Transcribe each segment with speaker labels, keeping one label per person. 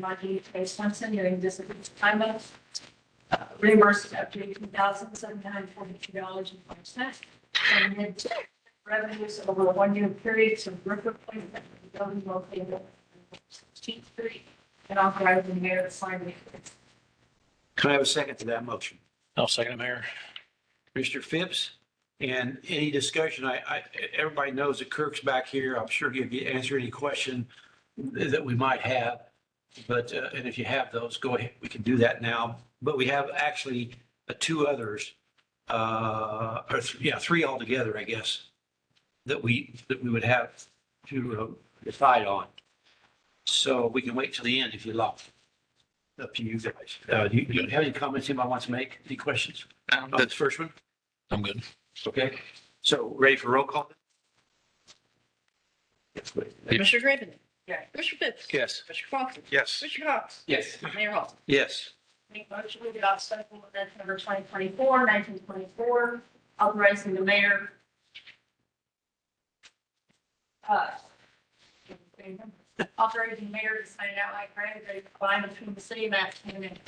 Speaker 1: Margie K. Swenson during disability time of uh, reimbursed up to eighteen thousand seven hundred forty-two dollars and five cents. And then revenues over a one-year period to work appointment, for the building located on Sixteenth Street, and authorizing the mayor to sign the.
Speaker 2: Can I have a second to that motion?
Speaker 3: I'll Oh, second it, Mayor.
Speaker 2: Mr. Phipps, and any discussion, I, I, everybody knows that Kirk's back here. I'm sure he'll get, answer any question that we might have. But, uh, and if you have those, go ahead, we can do that now. But we have actually uh, two others, uh, or, th- yeah, three altogether, I guess, that we, that we would have to uh, decide on. So we can wait till the end if you like. Up to you guys. Uh, do you, do you have any comments anybody wants to make? Any questions?
Speaker 3: Um,
Speaker 2: On the first one?
Speaker 3: I'm good.
Speaker 2: Okay, so ready for roll call? Yes, please.
Speaker 4: Commissioner Draven.
Speaker 1: Yeah.
Speaker 4: Commissioner Fix.
Speaker 3: Yes.
Speaker 4: Commissioner Coffin.
Speaker 3: Yes.
Speaker 4: Commissioner Cox.
Speaker 2: Yes.
Speaker 4: Mayor Hall.
Speaker 2: Yes,
Speaker 1: Make motion to adopt special ordinance number 2024 1924, authorizing the mayor. uh, Authorizing the mayor to sign out like grant agreement combined between the city of Atchison and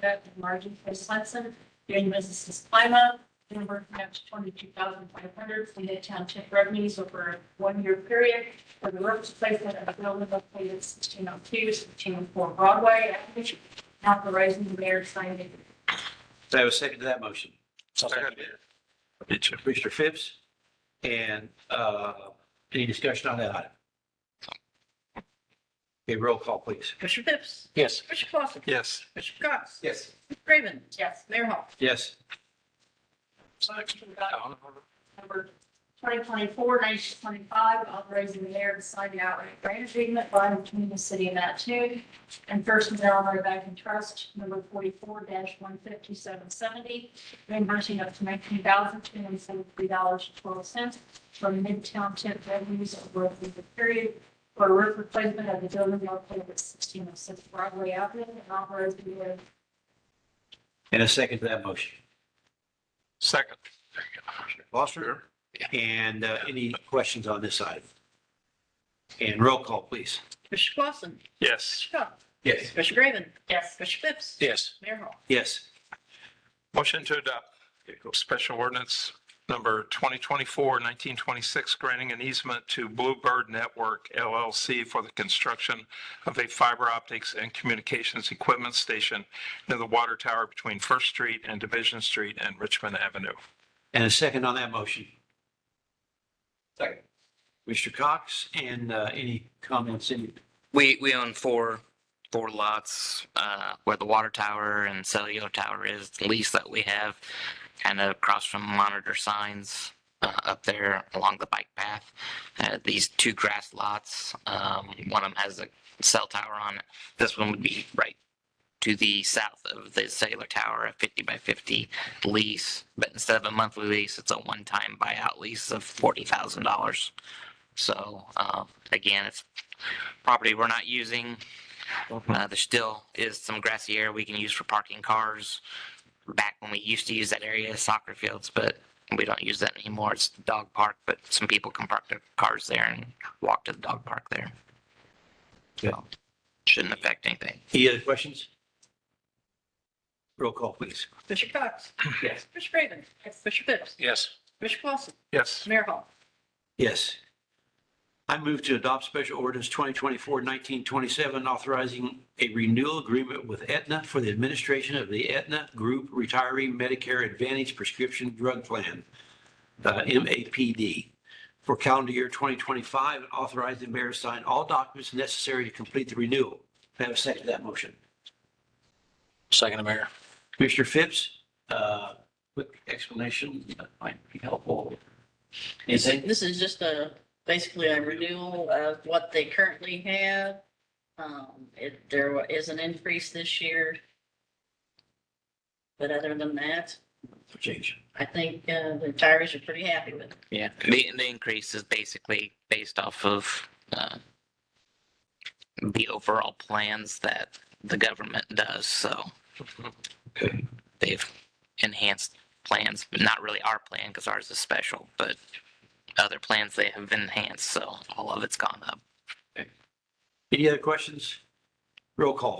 Speaker 1: that of Margin K. Swenson, doing business as Clima, number up to twenty-two thousand five hundred from the township revenues over a one-year period for the work placement of a building located sixteen oh two, sixteen oh four Broadway, which authorizing the mayor to sign it.
Speaker 2: so I have a second to that motion.
Speaker 3: I'll second it.
Speaker 2: It's Commissioner Phipps, and uh, any discussion on that item? Okay, roll call, please.
Speaker 4: Commissioner Fix.
Speaker 3: Yes.
Speaker 4: Commissioner Coffin.
Speaker 3: Yes.
Speaker 4: Commissioner Cox.
Speaker 2: Yes.
Speaker 4: Draven.
Speaker 1: Yes.
Speaker 4: Mayor Hall.
Speaker 2: Yes,
Speaker 1: Motion about number 2024 1925, authorizing the mayor to sign the outright grant agreement by and between the city and that too. And First and Delaware Bank and Trust, number 44-15770, reimbursing up to $19,273.12 from Midtown tip revenues over the period for roof replacement of the building located at 1606 Broadway Avenue and authorizing the mayor
Speaker 2: and a second to that motion.
Speaker 3: Second.
Speaker 2: Foster, and uh, any questions on this item? And roll call, please.
Speaker 4: Commissioner Coffin.
Speaker 3: Yes.
Speaker 4: Commissioner Cox.
Speaker 2: Yes.
Speaker 4: Commissioner Draven.
Speaker 1: Yes.
Speaker 4: Commissioner Fix.
Speaker 3: Yes.
Speaker 4: Mayor Hall.
Speaker 2: Yes.
Speaker 5: Motion to adopt special ordinance number 2024-1926, granting an easement to Bluebird Network LLC for the construction of a fiber optics and communications equipment station near the water tower between First Street and Division Street and Richmond Avenue.
Speaker 2: And a second on that motion? Second. Mr. Cox, and uh, any comments, any,
Speaker 6: We we own four four lots uh, where the water tower and cellular tower is the lease that we have, kind of across from monitor signs uh, up there along the bike path. Uh, these two grass lots, um, one of them has a cell tower on it. This one would be right to the south of the cellular tower, a 50 by 50 lease. But instead of a monthly lease, it's a one-time buyout lease of $40,000. So uh, again, it's property we're not using. Uh, there still is some grassy area we can use for parking cars. Back when we used to use that area, as soccer fields, but we don't use that anymore. It's the dog park, but some people can park their cars there and walk to the dog park there. So, shouldn't affect anything.
Speaker 2: any other questions? Roll call, please.
Speaker 4: Commissioner Cox.
Speaker 2: Yes.
Speaker 4: Commissioner Draven. Commissioner Fix.
Speaker 3: Yes.
Speaker 4: Commissioner Coffin.
Speaker 5: Yes,
Speaker 4: Mayor Hall.
Speaker 2: Yes. I move to adopt special ordinance 2024-1927, authorizing a renewal agreement with Aetna for the administration of the Aetna Group Retiree Medicare Advantage Prescription Drug Plan, uh, MAPD, for calendar year 2025, and authorize the mayor to sign all documents necessary to complete the renewal. May I have a second to that motion?
Speaker 3: Second, Mayor.
Speaker 2: Commissioner Phipps, uh, quick explanation that might be helpful. Is it?
Speaker 4: This is just a, basically a renewal of what they currently have. Um, it, there wa- is an increase this year. But other than that,
Speaker 2: Change.
Speaker 4: I think, uh, the tires are pretty happy with it.
Speaker 6: Yeah. The, the increase is basically based off of, uh, the overall plans that the government does, so.
Speaker 2: Okay.
Speaker 6: they've enhanced plans, but not really our plan because ours is special, but other plans they have enhanced, so all of it's gone up.
Speaker 2: Any other questions? Roll call.